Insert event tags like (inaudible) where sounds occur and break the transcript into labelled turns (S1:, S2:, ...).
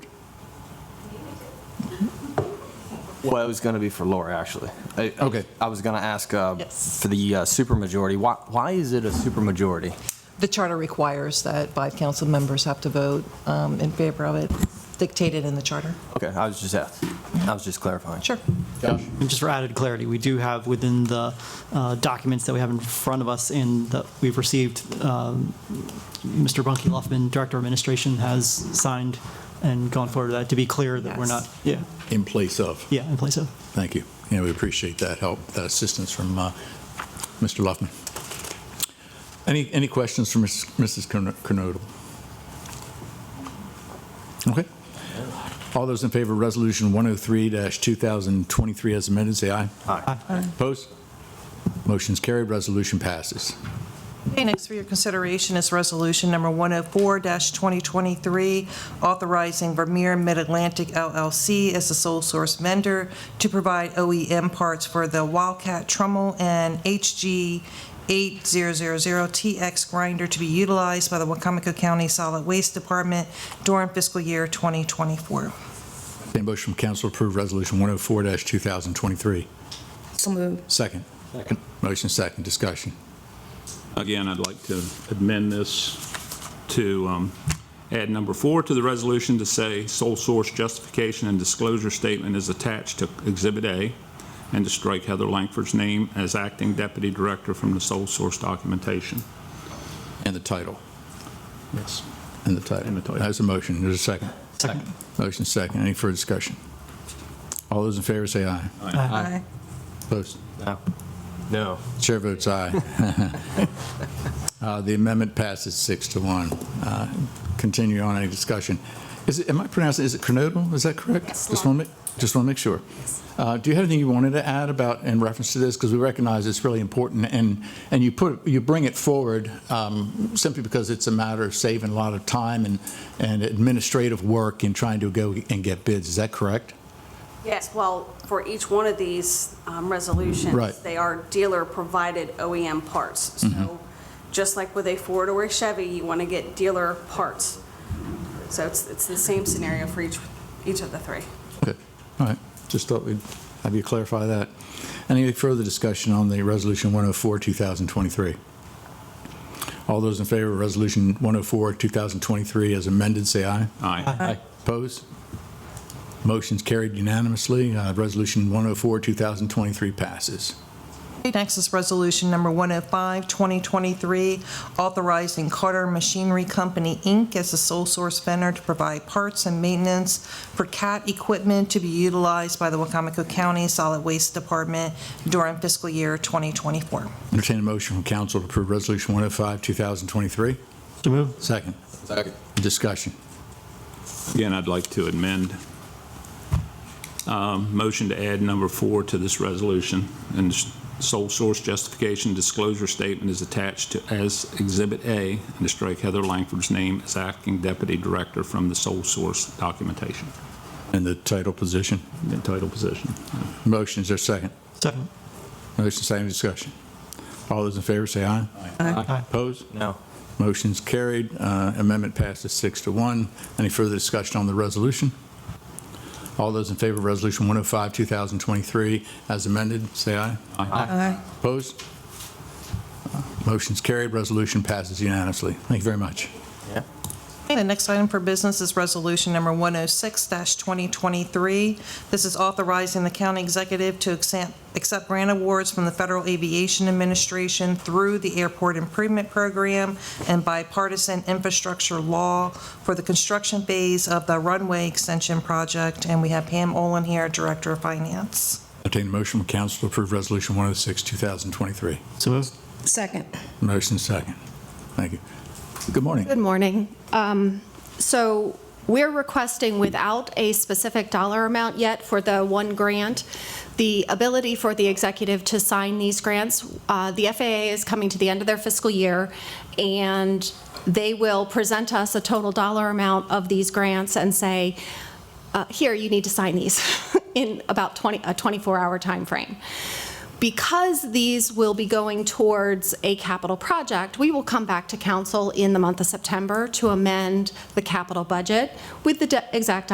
S1: Well, it was going to be for Laura, actually. I-
S2: Okay.
S1: I was going to ask uh,
S3: Yes.
S1: for the uh, supermajority. Why, why is it a supermajority?
S3: The charter requires that five council members have to vote um, in favor of it, dictated in the charter.
S1: Okay, I was just asking. I was just clarifying.
S3: Sure.
S2: Josh?
S4: And just for added clarity, we do have within the uh, documents that we have in front of us and that we've received, um, Mr. Bunky Luffman, Director of Administration, has signed and gone forward to that to be clear that we're
S3: Yes.
S4: not, yeah,
S2: In place of.
S4: yeah, in place of.
S2: Thank you. Yeah, we appreciate that help, that assistance from uh, Mr. Luffman. Any, any questions from Ms- Mrs. Kern- Kernodle? Okay. All those in favor of Resolution 103-2023 as amended, say aye.
S4: Aye.
S2: Opposed? Motion's carried, resolution passes.
S3: Okay, next for your consideration is Resolution Number 104-2023, authorizing Vermeer Mid-Atlantic LLC as the sole source vendor to provide OEM parts for the Wildcat Trummel and HG 8000TX grinder to be utilized by the Wacomico County Solid Waste Department during fiscal year 2024.
S2: Entertained motion from council to approve Resolution 104-2023.
S5: So moved.
S2: Second. Second. Motion second, discussion.
S6: Again, I'd like to amend this to um, add number four to the resolution to say sole source justification and disclosure statement is attached to Exhibit A, and to strike Heather Langford's name as acting deputy director from the sole source documentation.
S2: And the title.
S6: Yes.
S2: And the title.
S6: And the title.
S2: That's a motion, there's a second.
S4: Second.
S2: Motion second. Any further discussion? All those in favor say aye.
S3: Aye.
S2: Opposed?
S1: No. No.
S2: Chair votes aye. Uh, The amendment passes six to one. Uh, Continue on any discussion. Is it, am I pronouncing, is it Cronodle? Is that correct? Just want to, just want to make sure. Uh, Do you have anything you wanted to add about, in reference to this? Because we recognize it's really important, and, and you put, you bring it forward um, simply because it's a matter of saving a lot of time and, and administrative work in trying to go and get bids. Is that correct?
S7: Yes, well, for each one of these um, resolutions.
S2: Right.
S7: They are dealer-provided OEM parts. So just like with a Ford or a Chevy, you want to get dealer parts. So it's, it's the same scenario for each, each of the three.
S2: Okay, all right, just thought we'd have you clarify that. Any further discussion on the Resolution 104, 2023? All those in favor of Resolution 104, 2023 as amended, say aye.
S6: Aye.
S2: Opposed? Motion's carried unanimously. Uh, Resolution 104, 2023 passes.
S3: Okay, Next is Resolution Number 105, 2023, authorizing Carter Machinery Company, Inc. as the sole source vendor to provide parts and maintenance for CAT equipment to be utilized by the Wacomico County Solid Waste Department during fiscal year 2024.
S2: Entertain a motion from council to approve Resolution 105, 2023.
S4: So move.
S2: Second. Second. Discussion.
S6: Again, I'd like to amend, um, motion to add number four to this resolution, and s- sole source justification disclosure statement is attached to as Exhibit A, and to strike Heather Langford's name as acting deputy director from the sole source documentation,
S2: And the title position.
S6: the title position.
S2: Motion, is there a second?
S4: Second.
S2: Motion, same discussion. All those in favor say aye.
S4: Aye.
S2: Opposed?
S1: No.
S2: Motion's carried. Uh, Amendment passes six to one. Any further discussion on the resolution? All those in favor of Resolution 105, 2023, as amended, say aye.
S3: Aye.
S2: Opposed? Uh, Motion's carried. Resolution passes unanimously. Thank you very much.
S1: Yeah.
S3: Okay, The next item for business is Resolution Number 106-2023. This is authorizing the county executive to accept accept grant awards from the Federal Aviation Administration through the Airport Improvement Program and bipartisan infrastructure law for the construction phase of the runway extension project. And we have Pam Olin here, Director of Finance.
S2: Entertain a motion from council to approve Resolution 106, 2023.
S4: So move.
S5: Second.
S2: Motion second. Thank you. Good morning.
S8: Good morning. Um, So we're requesting, without a specific dollar amount yet for the one grant, the ability for the executive to sign these grants. Uh, The FAA is coming to the end of their fiscal year, and they will present us a total dollar amount of these grants and say, uh, here, you need to sign these (laughs) in about 20, a 24-hour timeframe. Because these will be going towards a capital project, we will come back to council in the month of September to amend the capital budget with the de- exact